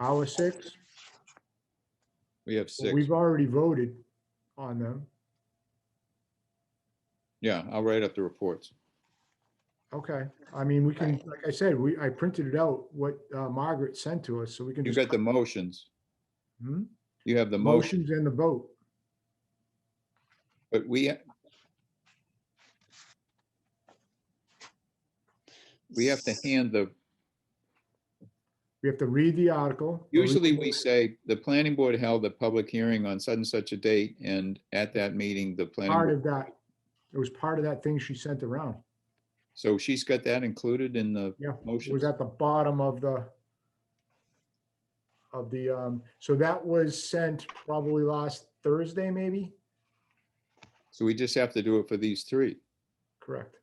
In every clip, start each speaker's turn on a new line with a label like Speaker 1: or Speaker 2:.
Speaker 1: Our six?
Speaker 2: We have
Speaker 1: Well,
Speaker 2: six.
Speaker 1: We've already voted on them.
Speaker 2: Yeah, I'll write up the reports.
Speaker 1: Okay, I mean, we can, like I said, we, I printed it out, what uh, Margaret sent to us, so we can.
Speaker 2: You
Speaker 1: just
Speaker 2: got the motions.
Speaker 1: Hmm?
Speaker 2: You have the motion,
Speaker 1: Motions and the vote.
Speaker 2: but we, we have to hand the,
Speaker 1: We have to read the article. or read-
Speaker 2: usually we say, the planning board held a public hearing on such and such a date, and at that meeting, the planning.
Speaker 1: Part
Speaker 2: board
Speaker 1: of that, it was part of that thing she sent around.
Speaker 2: So she's got that included in the
Speaker 1: Yeah, It
Speaker 2: motion.
Speaker 1: was at the bottom of the of the, um, so that was sent probably last Thursday, maybe?
Speaker 2: So we just have to do it for these three.
Speaker 1: Correct.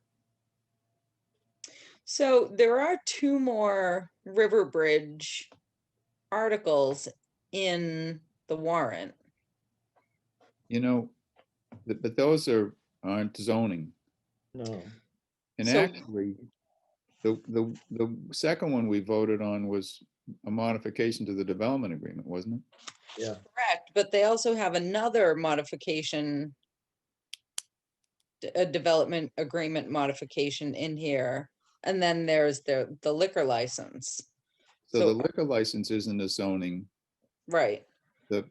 Speaker 3: So there are two more River Bridge articles in the warrant.
Speaker 2: You know, th- but those are, aren't zoning.
Speaker 4: No.
Speaker 2: And
Speaker 3: So-
Speaker 2: actually, the, the, the second one we voted on was a modification to the development agreement, wasn't it?
Speaker 3: Correct, but they also have another modification. d- A development agreement modification in here, and then there's the, the liquor license,
Speaker 2: So the
Speaker 3: So-
Speaker 2: liquor license isn't a zoning.
Speaker 3: right?
Speaker 2: The,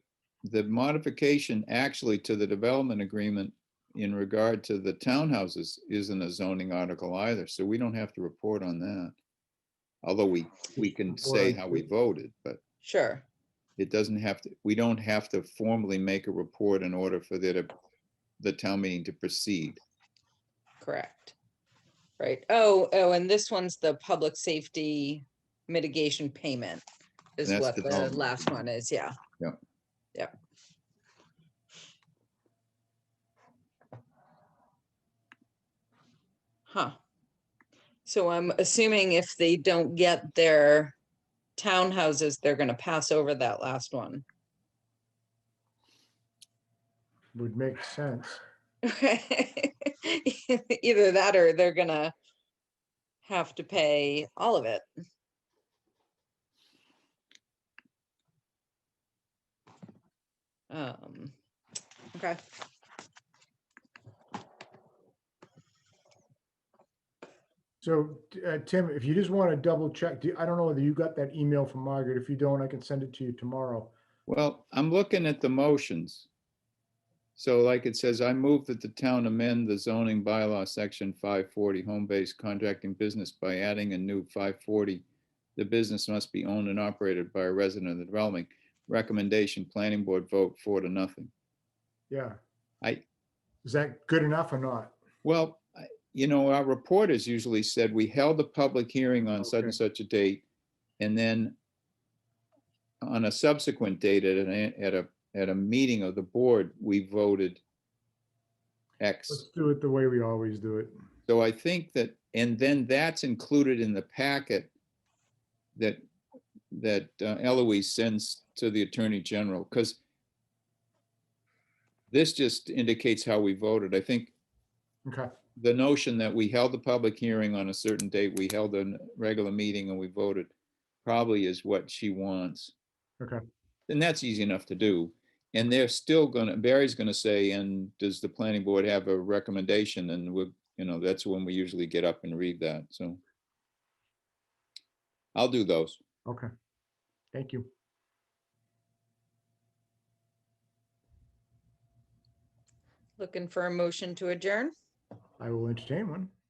Speaker 2: the modification actually to the development agreement in regard to the townhouses isn't a zoning article either, so we don't have to report on that. Although we, we can say
Speaker 1: Right.
Speaker 2: how we voted, but
Speaker 3: Sure,
Speaker 2: it doesn't have to, we don't have to formally make a report in order for the, to- the town meeting to proceed.
Speaker 3: correct. Right, oh, oh, and this one's the public safety mitigation payment is
Speaker 2: That's
Speaker 3: what the
Speaker 2: development.
Speaker 3: last one is, yeah. Huh. So I'm assuming if they don't get their townhouses, they're gonna pass over that last one.
Speaker 1: Would make sense.
Speaker 3: Either that or they're gonna have to pay all of it. Um, okay.
Speaker 1: So, uh, Tim, if you just want to double check, do- I don't know whether you got that email from Margaret. If you don't, I can send it to you tomorrow.
Speaker 2: Well, I'm looking at the motions. So like it says, I move that the town amend the zoning bylaw, section five forty, home-based contracting business by adding a new five forty. The business must be owned and operated by a resident of the dwelling. Recommendation, planning board vote four to nothing.
Speaker 1: Yeah.
Speaker 2: I-
Speaker 1: Is that good enough or not?
Speaker 2: Well, I- you know, our reporters usually said, we held a public hearing on such
Speaker 1: Okay.
Speaker 2: and such a date. And then on a subsequent date at an, at a, at a meeting of the board, we voted
Speaker 1: Let's
Speaker 2: X.
Speaker 1: do it the way we always do it.
Speaker 2: So I think that, and then that's included in the packet that, that uh, Eloise sends to the Attorney General, because this just indicates how we voted. I think
Speaker 1: Okay.
Speaker 2: the notion that we held the public hearing on a certain date, we held a regular meeting and we voted, probably is what she wants.
Speaker 1: Okay.
Speaker 2: And that's easy enough to do. And they're still gonna, Barry's gonna say, and does the planning board have a recommendation? And we're, you know, that's when we usually get up and read that, so. I'll do those.
Speaker 1: Okay. Thank you.
Speaker 3: Looking for a motion to adjourn?
Speaker 1: I will entertain one.